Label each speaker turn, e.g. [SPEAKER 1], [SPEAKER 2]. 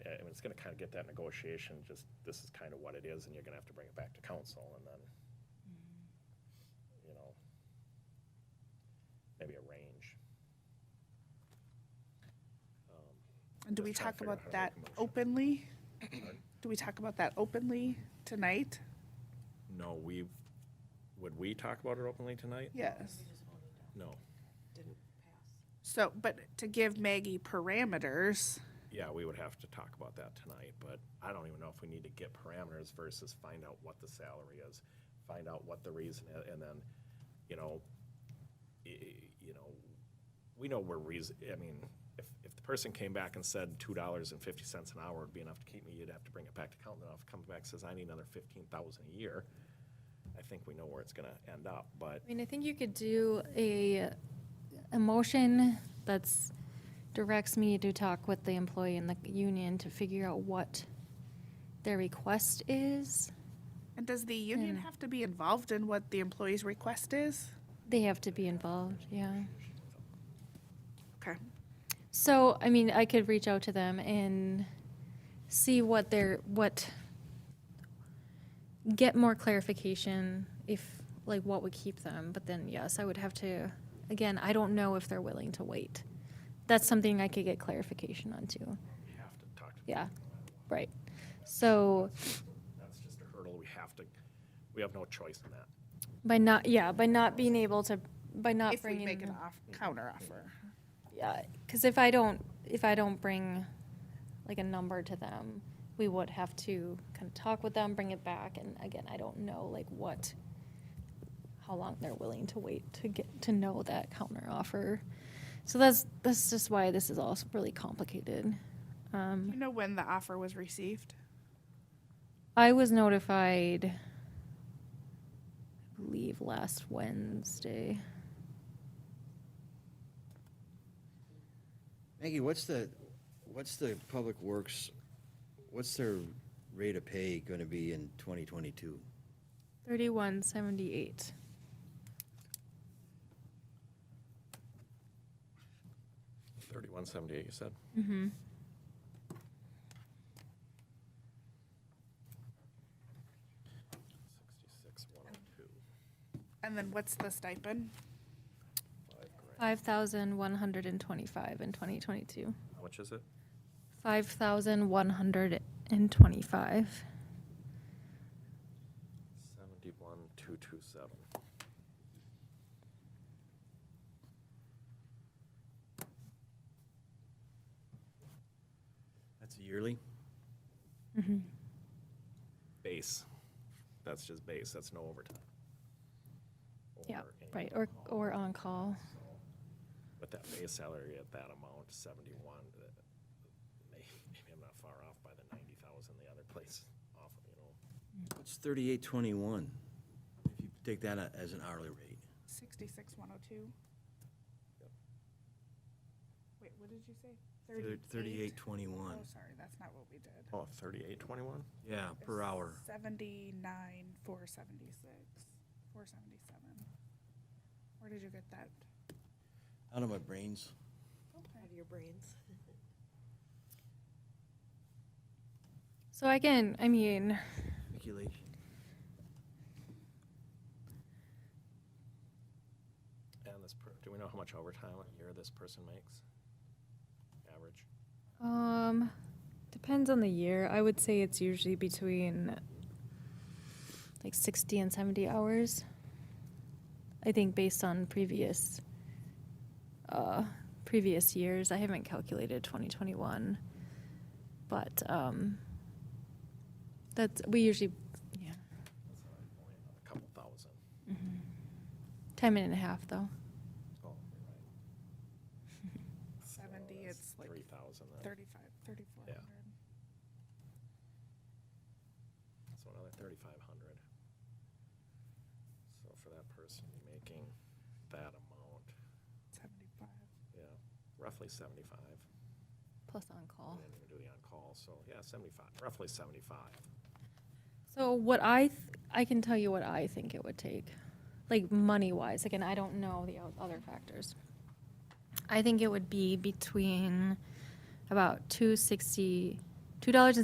[SPEAKER 1] it's gonna kind of get that negotiation, just this is kind of what it is, and you're gonna have to bring it back to council, and then, you know, maybe a range.
[SPEAKER 2] And do we
[SPEAKER 1] Just trying to
[SPEAKER 2] talk
[SPEAKER 1] figure out
[SPEAKER 2] about
[SPEAKER 1] how to
[SPEAKER 2] that
[SPEAKER 1] make a motion.
[SPEAKER 2] openly? Do we talk about that openly tonight?
[SPEAKER 1] No, we, would we talk about it openly tonight?
[SPEAKER 2] Yes.
[SPEAKER 1] No.
[SPEAKER 3] Didn't pass.
[SPEAKER 2] So, but to give Maggie parameters,
[SPEAKER 1] Yeah, we would have to talk about that tonight, but I don't even know if we need to get parameters versus find out what the salary is, find out what the reason is, and then, you know, i- i- you know, we know we're reason, I mean, if, if the person came back and said two dollars and fifty cents an hour would be enough to keep me, you'd have to bring it back to count, and if it comes back and says, I need another fifteen thousand a year, I think we know where it's gonna end up, but
[SPEAKER 4] I mean, I think you could do a, a motion that's, directs me to talk with the employee and the union to figure out what their request is.
[SPEAKER 2] and does the union
[SPEAKER 4] Hmm.
[SPEAKER 2] have to be involved in what the employee's request is?
[SPEAKER 4] They have to be involved, yeah.
[SPEAKER 2] Okay.
[SPEAKER 4] So, I mean, I could reach out to them and see what their, what, get more clarification if, like, what would keep them. But then, yes, I would have to, again, I don't know if they're willing to wait. That's something I could get clarification on too.
[SPEAKER 1] we have to talk to.
[SPEAKER 4] Yeah, right. So
[SPEAKER 1] That's just a hurdle, we have to, we have no choice in that.
[SPEAKER 4] by not, yeah, by not being able to, by not
[SPEAKER 2] If we
[SPEAKER 4] bringing,
[SPEAKER 2] make an off, counter offer.
[SPEAKER 4] yeah, because if I don't, if I don't bring like a number to them, we would have to kind of talk with them, bring it back, and again, I don't know like what, how long they're willing to wait to get to know that counter offer. So that's that's just why this is all really complicated. Hmm.
[SPEAKER 2] Do you know when the offer was received?
[SPEAKER 4] I was notified, I believe, last Wednesday.
[SPEAKER 5] Maggie, what's the, what's the Public Works, what's their rate of pay gonna be in twenty twenty-two?
[SPEAKER 4] 3178.
[SPEAKER 1] Thirty-one seventy-eight, you said? Sixty-six, one oh two,
[SPEAKER 2] And then what's the stipend?
[SPEAKER 1] five grand.
[SPEAKER 4] 5,125 in 2022.
[SPEAKER 1] How much is it?
[SPEAKER 4] 5,125.
[SPEAKER 1] Seventy-one, two, two, seven.
[SPEAKER 5] That's yearly?
[SPEAKER 4] Mm-hmm.
[SPEAKER 1] Base. That's just base, that's no overtime.
[SPEAKER 4] Yeah,
[SPEAKER 1] Or any-
[SPEAKER 4] right. Or, or on call.
[SPEAKER 1] With that base salary at that amount, seventy-one, that- may- maybe I'm not far off by the ninety thousand the other place off, you know.
[SPEAKER 5] What's thirty-eight twenty-one? If you take that a- as an hourly rate.
[SPEAKER 2] Sixty-six, one oh two. Wait, what did you say?
[SPEAKER 5] Thirty-eight twenty-one,
[SPEAKER 2] Oh, sorry, that's not what we did.
[SPEAKER 1] Oh, thirty-eight, twenty-one?
[SPEAKER 5] yeah, per hour.
[SPEAKER 2] Seventy-nine, four seventy-six, four seventy-seven. Where did you get that?
[SPEAKER 5] Out of my brains.
[SPEAKER 2] Okay.
[SPEAKER 3] Out of your brains.
[SPEAKER 4] So again, I mean,
[SPEAKER 5] Speculation.
[SPEAKER 1] And this, per- do we know how much overtime a year this person makes? Average?
[SPEAKER 4] um, depends on the year. I would say it's usually between like 60 and 70 hours. I think based on previous uh, previous years, I haven't calculated 2021, but um, that's we usually yeah
[SPEAKER 1] That's not only A couple thousand.
[SPEAKER 4] time and a half though.
[SPEAKER 1] Oh, you're right.
[SPEAKER 2] Seventy, it's like
[SPEAKER 1] Three thousand then.
[SPEAKER 2] thirty-five, thirty-four hundred.
[SPEAKER 1] So another thirty-five hundred. So for that person, you're making that amount,
[SPEAKER 2] Seventy-five.
[SPEAKER 1] yeah, roughly seventy-five.
[SPEAKER 4] Plus on
[SPEAKER 1] And
[SPEAKER 2] Oh.
[SPEAKER 4] call.
[SPEAKER 1] then you're doing on-call, so yeah, seventy-five, roughly seventy-five.
[SPEAKER 4] So what I th- I can tell you what I think it would take, like money wise. Again, I don't know the o- other factors. I think it would be between about two sixty two dollars and